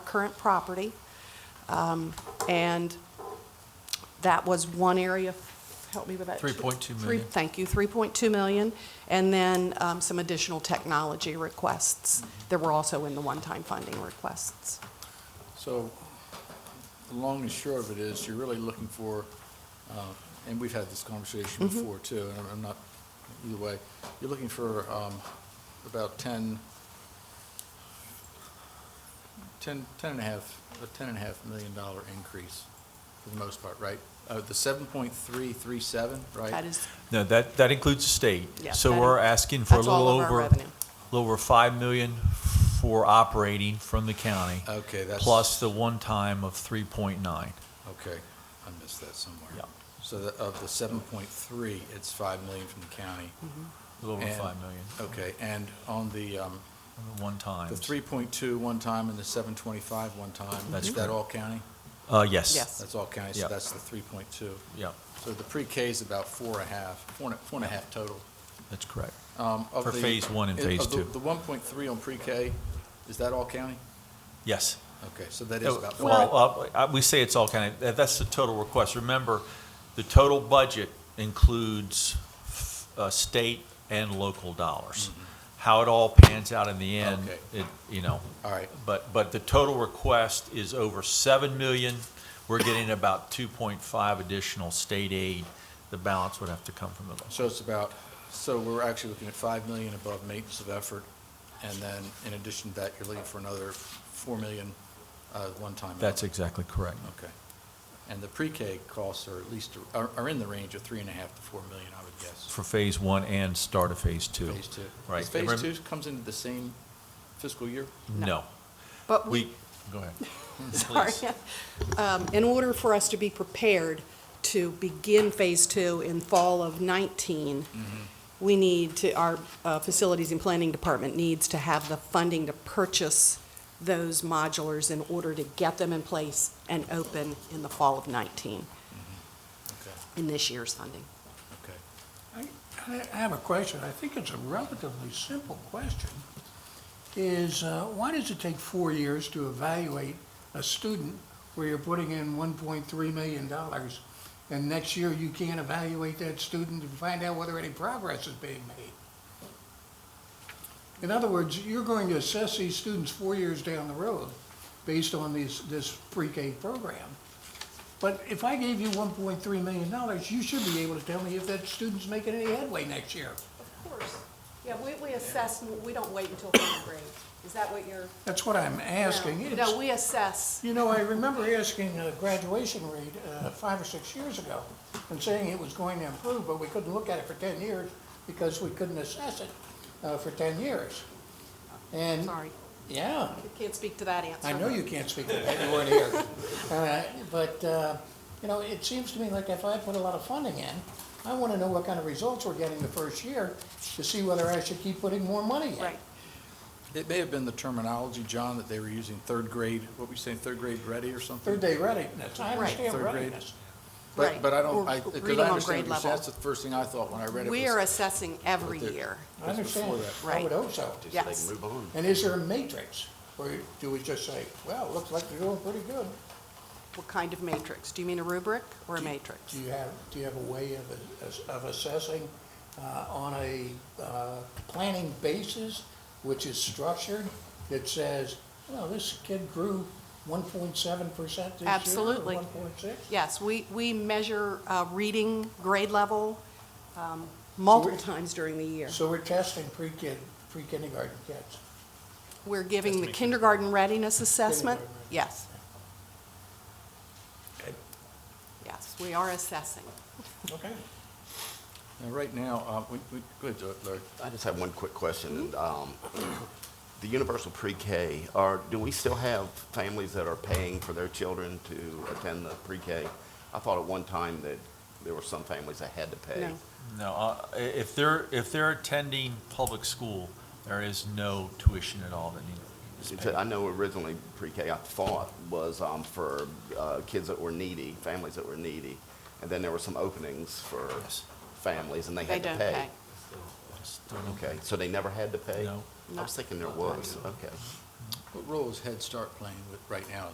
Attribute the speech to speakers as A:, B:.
A: current property. Um, And that was one area, help me with that.
B: 3.2
A: Three-
B: million.
A: Thank you, 3.2 million. And then um, some additional technology requests
B: Mm-hmm.
A: that were also in the one-time funding requests.
C: So, the long and short of it is, you're really looking for, uh, and we've had this conversation before too, and I'm- I'm not, either way, you're looking for um, about 10, 10, 10 and a half, a 10 and a half million dollar increase for the most part, right? Uh, The 7.337, right?
A: That is,
B: No, that, that includes the state.
A: Yeah,
B: So
A: that
B: we're
A: in-
B: asking for a
A: that's
B: little
A: all of our
B: over,
A: revenue.
B: little over 5 million for operating from the county,
C: Okay, Uh, that's.
B: plus the one-time of 3.9.
C: Okay, I missed that somewhere.
B: Yeah.
C: So the- of the 7.3, it's 5 million from the county.
B: A little over
C: And-
B: 5 million,
C: Okay, and on the, um,
B: on the one-time.
C: the 3.2 one time and the 725 one time,
B: That's
C: is that
B: correct.
C: all county?
B: Uh, yes.
A: Yes.
C: That's all county,
B: Yeah.
C: so that's the 3.2.
B: Yeah,
C: So the pre-K is about four and a half, four and a- four and a half total.
B: that's correct.
C: Um, of
B: For
C: the-
B: phase one and
C: of
B: phase
C: the-
B: two.
C: The 1.3 on pre-K, is that all county?
B: Yes.
C: Okay, so that is about four. and a-
B: Oh, Well, uh, we say it's all kind of, that's the total request. Remember, the total budget includes uh, state and local dollars. How it all pans out in the end,
C: Mm-hmm. Okay.
B: it, you know,
C: All right,
B: But, but the total request is over 7 million. We're getting about 2.5 additional state aid. The balance would have to come from the local.
C: so it's about, so we're actually looking at 5 million above maintenance of effort, and then in addition to that, you're looking for another 4 million uh, one time.
B: That's exactly correct.
C: Okay. And the pre-K costs are at least, are, are in the range of three and a half to four million, I would guess.
B: For phase one and start of phase two.
C: Phase two.
B: Right.
C: Does
B: And rem-
C: phase two comes into the same fiscal year?
B: No.
A: but we
B: We, go ahead.
A: Sorry.
B: Please.
A: Um, In order for us to be prepared to begin Phase Two in fall of 19, we need to, our uh, Facilities and Planning Department needs to have the funding to purchase those modulars in order to get them in place and open in the fall of 19,
C: Okay,
A: in this year's funding.
C: okay.
D: I I have a question. I think it's a relatively simple question. Is, uh, why does it take four years to evaluate a student where you're putting in $1.3 million? And next year, you can't evaluate that student to find out whether any progress is being made? In other words, you're going to assess these students four years down the road based on these, this pre-K program. But if I gave you one point three million dollars, you should be able to tell me if that student's making any headway next year.
A: Of course. Yeah, we assess, we don't wait until third grade. Is that what you're?
D: That's what I'm asking. It's-
A: No, we assess.
D: You know, I remember asking a graduation rate uh, five or six years ago and saying it was going to improve, but we couldn't look at it for ten years because we couldn't assess it uh, for ten years. And,
A: Sorry,
D: yeah,
A: I can't speak to that answer.
D: I know you can't speak to that, you weren't here. Uh, But, uh, you know, it seems to me like if I put a lot of funding in, I want to know what kind of results we're getting the first year to see whether I should keep putting more money in.
A: Right.
C: It may have been the terminology, John, that they were using third grade, what were you saying, third grade ready or something?
D: Third day readiness, I
A: Right.
D: understand
C: Third grade.
D: readiness.
C: But,
A: Right.
C: but I don't, I,
A: Or
C: because
A: reading
C: I
A: on grade
C: understand what you're saying,
A: level.
C: that's the first thing I thought when I read it was.
A: We are assessing every
C: But the-
A: year.
D: I understand,
C: before that.
D: I would
A: Right.
D: hope so.
A: Yes.
D: And is there a matrix? Or do we just say, well, looks like you're doing pretty good?
A: What kind of matrix? Do you mean a rubric or a
D: Do-
A: matrix?
D: Do you have, do you have a way of, of assessing uh, on a uh, planning basis, which is structured, that says, well, this kid grew one point seven percent this year?
A: Absolutely.
D: One point six?
A: Yes, we, we measure uh, reading grade level um, multiple times during the year.
D: So we're testing pre-kid, pre-kindergarten kids.
A: We're giving the kindergarten readiness assessment. Yes. Yes, we are assessing.
D: Okay.
C: Now, right now, uh, we, we, go ahead, Larry.
E: I just have one quick question. Um, The universal pre-K, are, do we still have families that are paying for their children to attend the pre-K? I thought at one time that there were some families that had to pay.
A: No.
B: No, uh, i- if they're, if they're attending public school, there is no tuition at all that needs to be
E: It's-
B: paid.
E: I know originally pre-K, I thought, was um, for uh, kids that were needy, families that were needy. And then there were some openings for
B: Yes.
E: families, and they
A: They
E: had to
A: don't
E: pay.
A: pay.
B: Still no-
E: Okay, so they never had to pay?
B: No.
E: I was thinking there was, okay.
C: What role is Head Start playing with, right now,